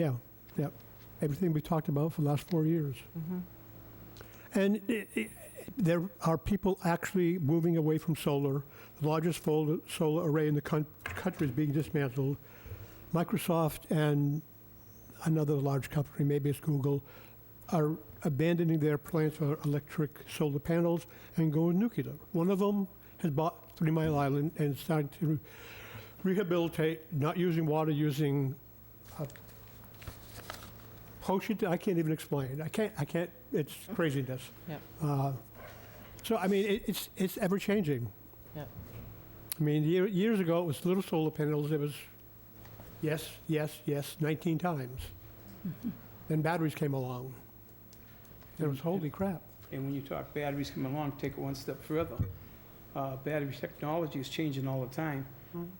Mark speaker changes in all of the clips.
Speaker 1: Yeah, yeah. Everything we talked about for the last four years.
Speaker 2: Mm-hmm.
Speaker 1: And i i there are people actually moving away from solar. The largest solar, solar array in the coun- country is being dismantled. Microsoft and another large company, maybe it's Google, are abandoning their plans for electric solar panels and going nuclear. One of them has bought Three Mile Island and is starting to rehabilitate, not using water, using uh, potion. I can't even explain. I can't. I can't. It's craziness.
Speaker 2: Yep.
Speaker 1: Uh, so I mean, it, it's it's ever changing.
Speaker 2: Yep.
Speaker 1: I mean, year, years ago it was little solar panels. It was yes, yes, yes, 19 times. then batteries came along. And
Speaker 2: Mm-hmm.
Speaker 1: it was holy crap.
Speaker 3: And when you talk batteries coming along, take it one step further. Uh, Battery technology is changing all the time,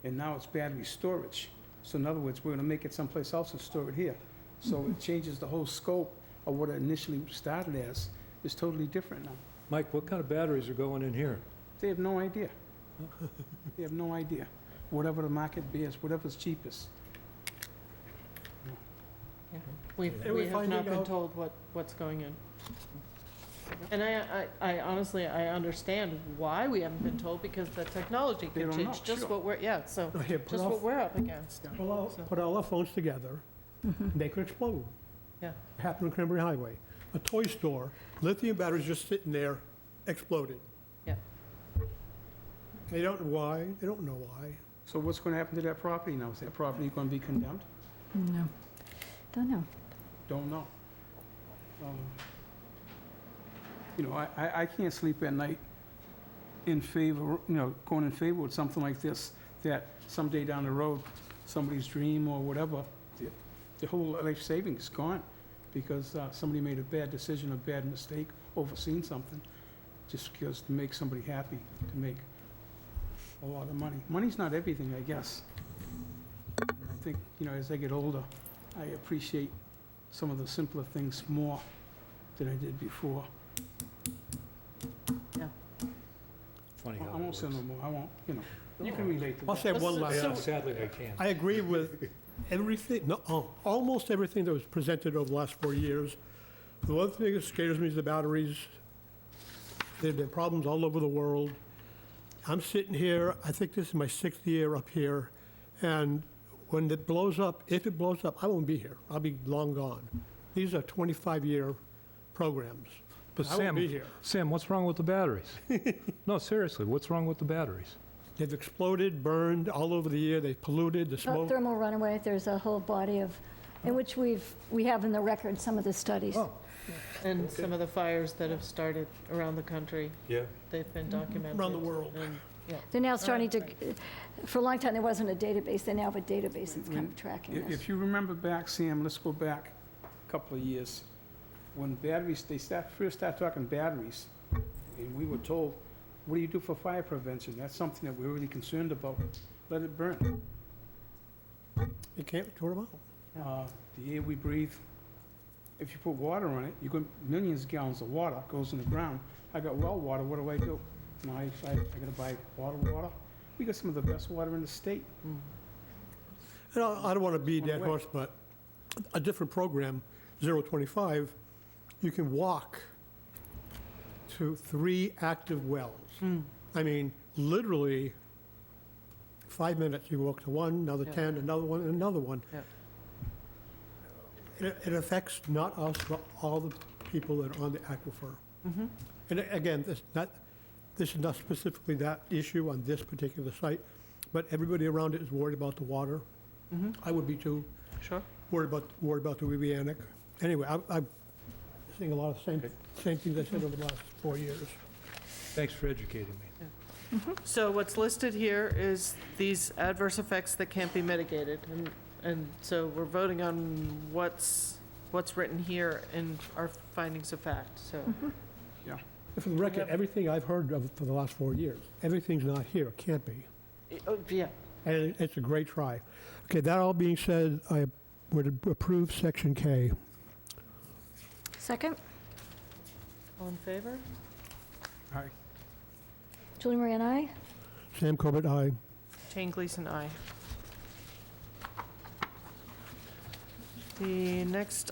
Speaker 3: and now it's battery storage. So in other words, we're gonna make it someplace else and store it here. So it changes the whole scope of what it initially started as, is totally different now.
Speaker 4: Mike, what kind of batteries are going in here?
Speaker 3: They have no idea. They have no idea. Whatever the market bears, whatever's cheapest.
Speaker 2: We've,
Speaker 1: And
Speaker 2: we
Speaker 1: we're
Speaker 2: have not
Speaker 1: finding
Speaker 2: been
Speaker 1: out-
Speaker 2: told what, what's going in. And I, I, I honestly, I understand why we haven't been told, because the technology
Speaker 3: They
Speaker 2: could
Speaker 3: don't
Speaker 2: change,
Speaker 3: know,
Speaker 2: just
Speaker 3: sure.
Speaker 2: what we're, yeah, so,
Speaker 1: Here, put,
Speaker 2: just
Speaker 1: all,
Speaker 2: what we're up against.
Speaker 1: put, all,
Speaker 2: so- Mm-hmm.
Speaker 1: put all our phones together, they could explode.
Speaker 2: Yeah.
Speaker 1: Happened on Cranberry Highway. A toy store, lithium batteries just sitting there, exploded.
Speaker 2: Yeah.
Speaker 1: They don't know why. They don't know why.
Speaker 3: So what's gonna happen to that property now? Is that property gonna be condemned?
Speaker 5: No, don't know.
Speaker 3: Don't know. Um, You know, I- I, I can't sleep at night in favor, you know, going in favor with something like this, that someday down the road, somebody's dream or whatever, the- the whole life savings gone because uh, somebody made a bad decision, a bad mistake, overseen something, just because to make somebody happy, to make a lot of money. Money's not everything, I guess. And I think, you know, as I get older, I appreciate some of the simpler things more than I did before.
Speaker 4: Funny
Speaker 3: I
Speaker 4: how
Speaker 3: won't
Speaker 4: it
Speaker 3: say no
Speaker 4: works.
Speaker 3: more, I won't, you know, you can relate to
Speaker 1: I'll
Speaker 3: that.
Speaker 1: say one
Speaker 2: So-
Speaker 1: last
Speaker 4: Yeah, sadly, I can't.
Speaker 1: I agree with everything, no, al- almost everything that was presented over the last four years. The one thing that scares me is the batteries. There have been problems all over the world. I'm sitting here, I think this is my sixth year up here, and when it blows up, if it blows up, I won't be here. I'll be long gone. These are 25-year programs.
Speaker 4: But
Speaker 1: I won't be
Speaker 4: Sam,
Speaker 1: here.
Speaker 4: Sam, what's wrong with the batteries? No, seriously, what's wrong with the batteries?
Speaker 1: They've exploded, burned all over the year, they polluted, the
Speaker 5: Uh,
Speaker 1: smoke.
Speaker 5: Thermal runaway, there's a whole body of, in which we've, we have in the record some of the studies.
Speaker 4: Oh,
Speaker 2: And some of the fires that have started around the country,
Speaker 4: yeah.
Speaker 2: they've been documented.
Speaker 1: Mm-hmm. Around the world.
Speaker 2: and-
Speaker 5: They're now starting to, for a long time, there wasn't a database, they now have a database that's kind of
Speaker 3: I-
Speaker 5: tracking this.
Speaker 3: Mm-hmm. If you remember back, Sam, let's go back a couple of years. When batteries, they start, first start talking batteries, and we were told, what do you do for fire prevention? That's something that we're really concerned about. Let it burn.
Speaker 1: You can't throw them out.
Speaker 3: Uh, The air we breathe, if you put water on it, you go, millions of gallons of water goes in the ground. I got well water, what do I do? Now, I, I I gotta buy bottled water. We got some of the best water in the state.
Speaker 2: Mm.
Speaker 1: And I I don't want to be a
Speaker 3: One
Speaker 1: dead
Speaker 3: way.
Speaker 1: horse, but a different program, 025, you can walk to three active wells.
Speaker 2: Hmm.
Speaker 1: I mean, literally, five minutes, you walk to one, another
Speaker 2: Yeah.
Speaker 1: 10, another one, and another one.
Speaker 2: Yeah.
Speaker 1: It it affects not us, but all the people that are on the aquifer.
Speaker 2: Mm-hmm.
Speaker 1: And a- again, this not, this is not specifically that issue on this particular site, but everybody around it is worried about the water.
Speaker 2: Mhm.
Speaker 1: I would be too,
Speaker 2: Sure.
Speaker 1: worried about, worried about the Weebianic. Anyway, I- I'm seeing a lot of same, same things I said over the last four years.
Speaker 4: Thanks for educating me.
Speaker 2: So what's listed here is these adverse effects that can't be mitigated, and, and so we're voting on what's, what's written here in our findings of fact, so.
Speaker 1: And For the record, everything I've heard of for the last four years, everything's not here, can't be.
Speaker 2: Oh, Yeah,
Speaker 1: And it's a great try. Okay, that all being said, I would approve section K.
Speaker 5: Second,
Speaker 2: all in favor?
Speaker 3: All right,
Speaker 5: Julie Marie and I,
Speaker 1: Sam Corbett, aye.
Speaker 2: Jane Gleason, aye. The next